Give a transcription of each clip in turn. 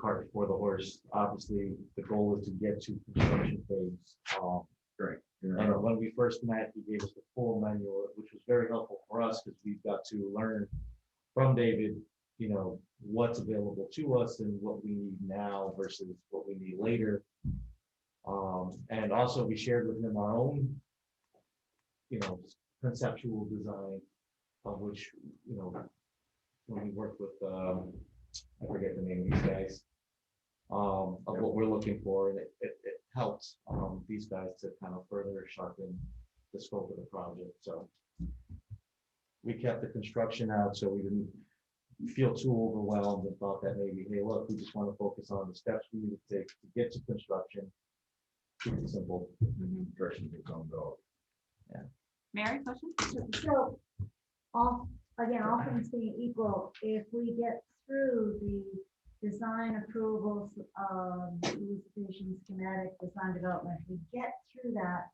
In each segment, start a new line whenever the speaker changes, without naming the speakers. cart before the horse. Obviously, the goal is to get to construction phase. uh,
Yeah.
And uh, when we first met, he gave us the full manual, which was very helpful for us because we've got to learn from David, you know, what's available to us and what we need now versus what we need later. Um, and also we shared with him our own, you know, conceptual design of which, you know, when we worked with, um, I forget the name of these guys, um, of what we're looking for, and it, it, it helped, um, these guys to kind of further sharpen the scope of the project, so. We kept the construction out, so we didn't feel too overwhelmed and thought that maybe, hey, look, we just want to focus on the steps we need to take to get to construction. Keep it simple.
Direction to come dog.
Mary, question?
So, all, again, all things being equal, if we get through the design approvals of the solicitation schematic design development, if we get through that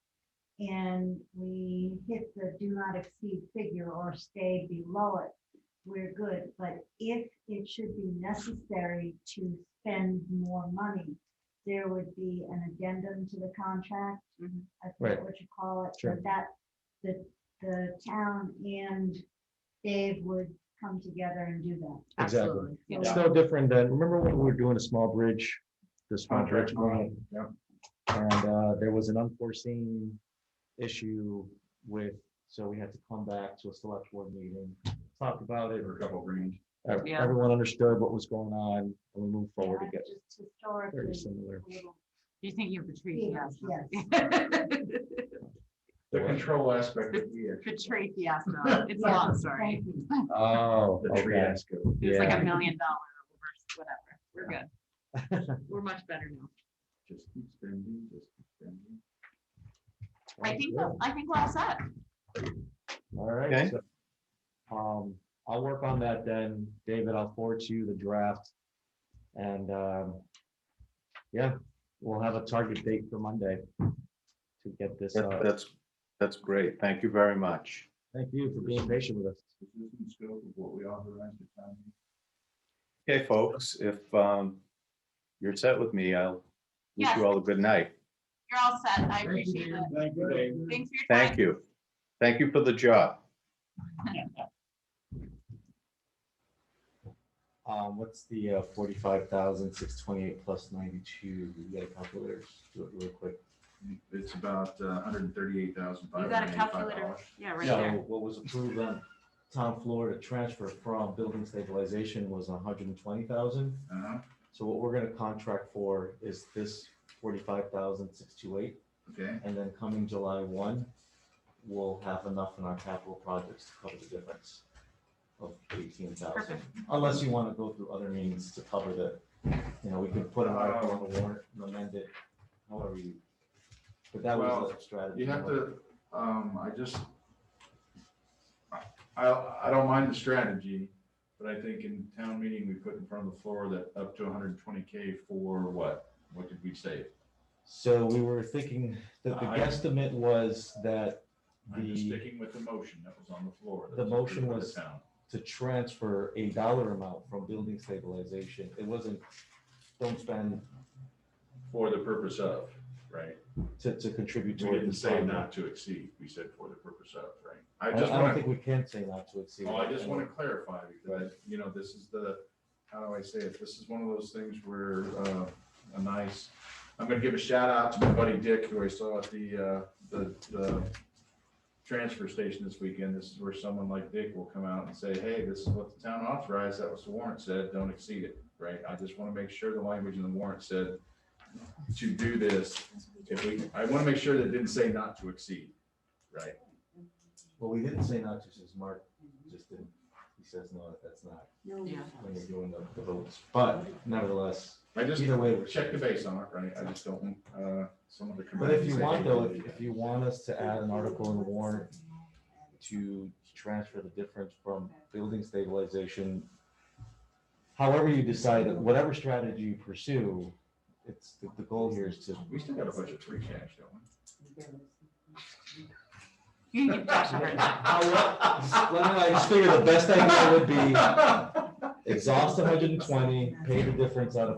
and we hit the do not exceed figure or stay below it, we're good. But if it should be necessary to spend more money, there would be an addendum to the contract.
Mhm.
I forget
Right.
what you call it,
Sure.
but that, the, the town and Dave would come together and do that.
Exactly.
Absolutely. Yeah.
It's no different than, remember when we were doing a small bridge, the small bridge
Contract
grant?
grant, yep.
And, uh, there was an unforeseen issue with, so we had to come back to a select board meeting, talk about it,
There were a couple of greens.
Ev-
Yeah.
Everyone understood what was going on, and we moved forward
Yeah,
again.
Just historically.
Very similar.
we don't-
You think you have the tree?
Yeah,
The control aspect of the. uh,
The tree fiasco. It's a long story.
Thank you.
Oh,
The tree aspect.
It's like
Yeah.
a million dollar reverse, whatever. We're good. We're much better now.
Just keep spending, just keep spending.
I think, that- I think we're all set.
All
Okay.
right. so, Um, I'll work on that then. David, I'll forward to you the draft. And, um, yeah, we'll have a target date for Monday to get this,
That-
uh,
That's, that's great. Thank you very much.
thank you for being patient with us.
Is this in scope of what we authorized at town meeting?
Okay, folks, if um, you're set with me, I'll wish
Yes.
you all a good night.
You're all set. I appreciate it.
Thank you, Dave.
Thanks for your time.
Thank you. Thank you for the job.
Um, what's the, uh, forty-five thousand, six twenty-eight plus ninety-two? You got a calculator? Do it real quick.
It's about a hundred and thirty-eight thousand five hundred
You got
and
a
eighty-five
calculator?
dollars.
Yeah, right
So
there.
what was approved on town floor to transfer from building stabilization was hundred and twenty thousand.
Uh-huh,
So what we're gonna contract for is this forty-five thousand six two eight,
okay,
and then coming July one, we'll have enough in our capital projects to cover the difference of eighteen thousand.
Perfect.
Unless you wanna go through other means to cover the, you know, we could put an article on the warrant and amend it, however you. But that was
Well,
a strategy.
you have to, um, I just. I, I don't mind the strategy, but I think in town meeting, we put in front of the floor that up to hundred and twenty K for what? What did we say?
So we were thinking that the
I-
guesstimate was that
I'm just
The-
sticking with the motion that was on the floor. that
The motion
approved by the
was-
town.
to transfer a dollar amount from building stabilization. It wasn't, don't spend
For the purpose of, right?
to, to
We
contribute toward
didn't
this.
say
fund.
not to exceed, we said for the purpose of, right?
I,
I
I
just
don't
want
think
to,
we can say not to exceed.
oh, I
that.
just want to clarify because, you know, this is the, how do I say it? This is one of those things where, uh, a nice, I'm gonna give a shout out to my buddy Dick, who I saw at the, uh, the, the transfer station this weekend. This is where someone like Dick will come out and say, hey, this is what the town authorized. That was the warrant said, don't exceed it, right? I just want to make sure the language in the warrant said to do this, if we, I want to make sure that it didn't say not to exceed, right?
Well, we didn't say not to, since Mark just didn't, he says, no, that's not
Yeah.
when you're doing the- the votes. But nevertheless,
I just
either way, we're
check the base on it, right? I just don't, want, uh, someone to come.
But
out
if
and
you
say,
want
"Hey,
though,
we
if,
did
if you want us to add an article in the warrant to transfer the difference from building stabilization, however you decide, whatever strategy you pursue, it's, the, the goal here is to,
that." We still got a bunch of free cash, don't we?
You can give Josh a hard time.
I just figured the best idea would be exhaust hundred and twenty, pay the difference out of